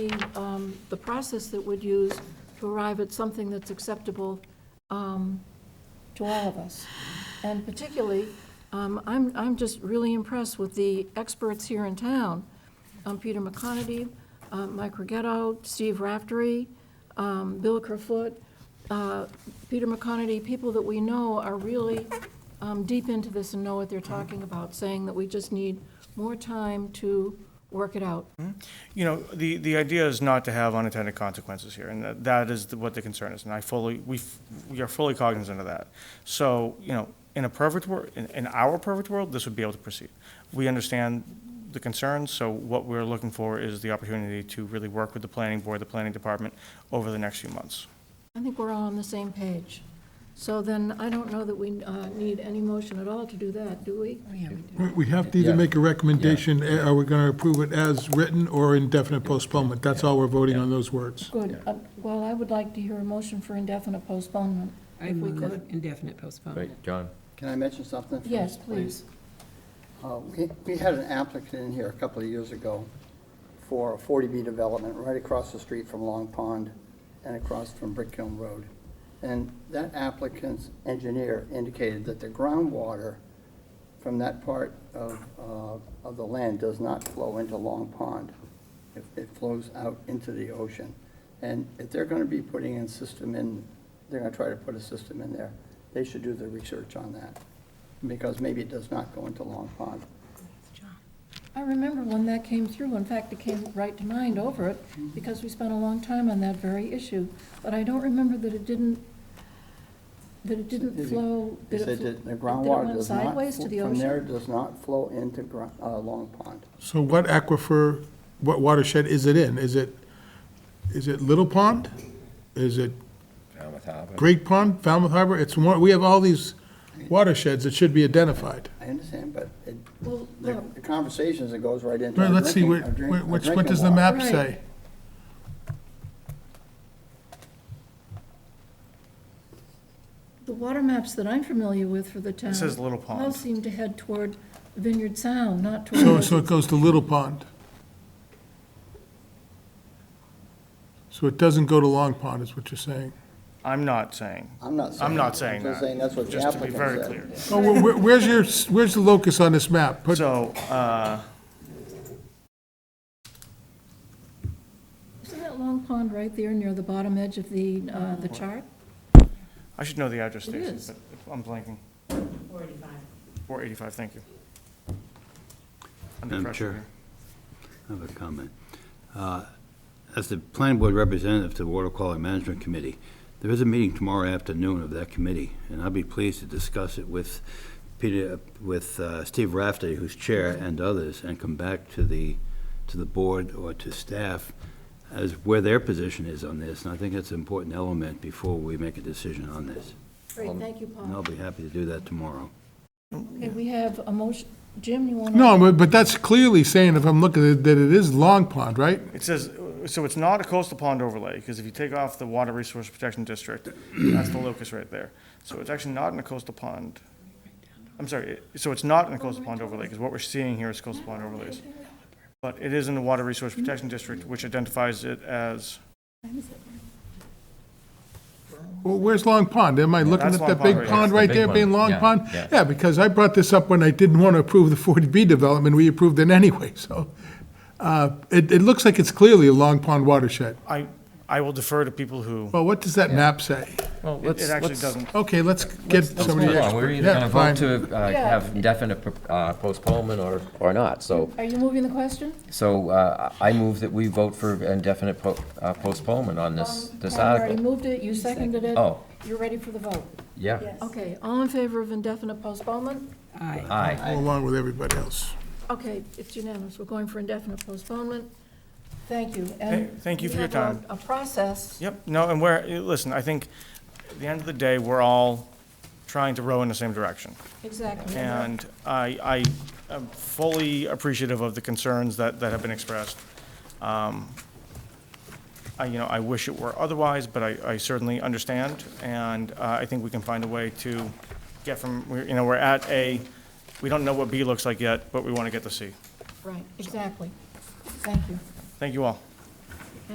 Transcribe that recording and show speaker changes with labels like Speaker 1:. Speaker 1: the, um, the process that we'd use to arrive at something that's acceptable um, to all of us. And particularly, um, I'm, I'm just really impressed with the experts here in town, um, Peter McConaty, uh, Mike Rigetto, Steve Raftery, um, Bill Kerfoot, uh, Peter McConaty, people that we know are really um, deep into this and know what they're talking about, saying that we just need more time to work it out.
Speaker 2: You know, the, the idea is not to have unintended consequences here, and that- that is the- what the concern is, and I fully, we, f- we are fully cognizant of that. So, you know, in a perfect world, in, in our perfect world, this would be able to proceed. We understand the concerns, so what we're looking for is the opportunity to really work with the planning board, the planning department, over the next few months.
Speaker 1: I think we're all on the same page. So then, I don't know that we uh, need any motion at all to do that, do we?
Speaker 3: We- We have to either
Speaker 4: Yeah.
Speaker 3: make a recommendation, eh, are we going to approve it as written or indefinite postponement? That's all we're voting on those words.
Speaker 1: Good. Uh, Well, I would like to hear a motion for indefinite postponement,
Speaker 5: I
Speaker 1: if we
Speaker 5: move
Speaker 1: could.
Speaker 5: indefinite postponement.
Speaker 4: Right, John?
Speaker 6: Can I mention something? first,
Speaker 1: Yes, please.
Speaker 6: Uh, We we had an applicant in here a couple of years ago for a 40B development right across the street from Long Pond and across from Brick Hill Road. And that applicant's engineer indicated that the groundwater from that part of, uh, of the land does not flow into Long Pond. It- It flows out into the ocean. And if they're going to be putting in system in, they're going to try to put a system in there, they should do the research on that, because maybe it does not go into Long Pond.
Speaker 1: I remember when that came through, in fact, it came right to mind over it, because we spent a long time on that very issue. But I don't remember that it didn't, that it didn't
Speaker 6: Did it-
Speaker 1: flow.
Speaker 6: They
Speaker 1: did it
Speaker 6: said
Speaker 1: fl-
Speaker 6: that the
Speaker 1: Did it
Speaker 6: groundwater
Speaker 1: went
Speaker 6: does not,
Speaker 1: sideways to
Speaker 6: fl-
Speaker 1: the
Speaker 6: from there
Speaker 1: ocean?
Speaker 6: does not flow into gro- uh, Long Pond.
Speaker 3: So what aquifer, what watershed is it in? Is it, is it Little Pond? Is it
Speaker 4: Falmouth Harbor.
Speaker 3: Great Pond, Falmouth Harbor? It's one, we have all these watersheds that should be identified.
Speaker 6: I understand, but it,
Speaker 1: Well,
Speaker 6: the
Speaker 1: look,
Speaker 6: the conversations, it goes right into.
Speaker 3: Well,
Speaker 6: our
Speaker 3: let's see,
Speaker 6: drinking-
Speaker 3: what,
Speaker 6: our drink-
Speaker 3: what-
Speaker 6: our
Speaker 3: what's- what
Speaker 6: drinking
Speaker 3: does the
Speaker 6: water.
Speaker 3: map
Speaker 1: Right.
Speaker 3: say?
Speaker 1: The water maps that I'm familiar with for the town.
Speaker 2: It says Little
Speaker 1: All
Speaker 2: Pond.
Speaker 1: seem to head toward Vineyard Sound, not
Speaker 3: So,
Speaker 1: toward,
Speaker 3: so it goes to Little Pond. So it doesn't go to Long Pond, is what you're saying?
Speaker 2: I'm not saying,
Speaker 6: I'm not saying.
Speaker 2: I'm not
Speaker 6: that.
Speaker 2: saying
Speaker 6: I'm just
Speaker 2: that.
Speaker 6: saying that's what the
Speaker 2: just to be
Speaker 6: applicant said.
Speaker 2: very clear.
Speaker 3: Oh, where- where- where's your, where's the locus on this map? Put-
Speaker 2: So, uh,
Speaker 1: isn't that Long Pond right there near the bottom edge of the, uh, the chart?
Speaker 2: I should know the address,
Speaker 1: It
Speaker 2: Stacy,
Speaker 1: is.
Speaker 2: but I'm blanking. 485. 485, thank you. Under
Speaker 7: Madam
Speaker 2: pressure
Speaker 7: Chair.
Speaker 2: here.
Speaker 7: I have a comment. Uh, As the planning board representative to the Water Quality Management Committee, there is a meeting tomorrow afternoon of that committee, and I'll be pleased to discuss it with Peter, with uh, Steve Rafferty, who's chair, and others, and come back to the, to the board or to staff as where their position is on this, and I think that's an important element before we make a decision on this.
Speaker 1: Great, thank you, Paul.
Speaker 7: And I'll be happy to do that tomorrow.
Speaker 1: Okay, we have a motion, Jim, you want to?
Speaker 3: No, but, but that's clearly saying, if I'm looking at it, that it is Long Pond, right?
Speaker 2: It says, uh, so it's not a coastal pond overlay, because if you take off the Water Resource Protection District, that's the locus right there. So it's actually not in a coastal pond. I'm sorry, it- so it's not in a coastal pond overlay, because what we're seeing here is coastal pond overlays. But it is in the Water Resource Protection District, which identifies it as,
Speaker 3: Well, where's Long Pond? Am I looking
Speaker 2: that's
Speaker 3: at
Speaker 2: Long
Speaker 3: that
Speaker 2: Pond
Speaker 3: big
Speaker 2: right
Speaker 3: pond
Speaker 4: there.
Speaker 3: right
Speaker 4: Big
Speaker 3: there
Speaker 4: one,
Speaker 3: being Long
Speaker 4: yeah,
Speaker 3: Pond?
Speaker 4: yeah.
Speaker 3: Yeah, because I brought this up when I didn't want to approve the 40B development, we approved it anyway, so. uh, It, it looks like it's clearly a Long Pond watershed.
Speaker 2: I, I will defer to people who,
Speaker 3: Well, what does that map say?
Speaker 4: Well,
Speaker 2: it it actually doesn't.
Speaker 3: Okay, let's get
Speaker 4: Let's
Speaker 3: somebody.
Speaker 4: move on. We're either
Speaker 3: Yeah,
Speaker 4: going to
Speaker 3: fine.
Speaker 4: vote to uh,
Speaker 1: Yeah.
Speaker 4: have indefinite uh, postponement or, or not. So,
Speaker 1: Are you moving the question?
Speaker 4: so uh, I move that we vote for indefinite po- uh, postponement on this, this
Speaker 1: Paul already
Speaker 4: article.
Speaker 1: moved it, you seconded it.
Speaker 4: Uh, Oh.
Speaker 1: You're ready for the vote.
Speaker 4: Yeah.
Speaker 1: Okay, all in favor of indefinite postponement?
Speaker 5: Aye.
Speaker 4: Aye.
Speaker 3: Go along with everybody else.
Speaker 1: Okay, it's unanimous, we're going for indefinite postponement. Thank you,
Speaker 2: Hey,
Speaker 1: and.
Speaker 2: thank you
Speaker 1: we
Speaker 2: for your
Speaker 1: have a-
Speaker 2: time.
Speaker 1: A process.
Speaker 2: Yep, no, and we're, eh, listen, I think, at the end of the day, we're all trying to row in the same direction.
Speaker 1: Exactly.
Speaker 2: And I, I am fully appreciative of the concerns that, that have been expressed. Um, I, you know, I wish it were otherwise, but I, I certainly understand, and uh, I think we can find a way to get from, we're- you know, we're at A, we don't know what B looks like yet, but we want to get to C.
Speaker 1: Right, exactly. Thank you.
Speaker 2: Thank you all.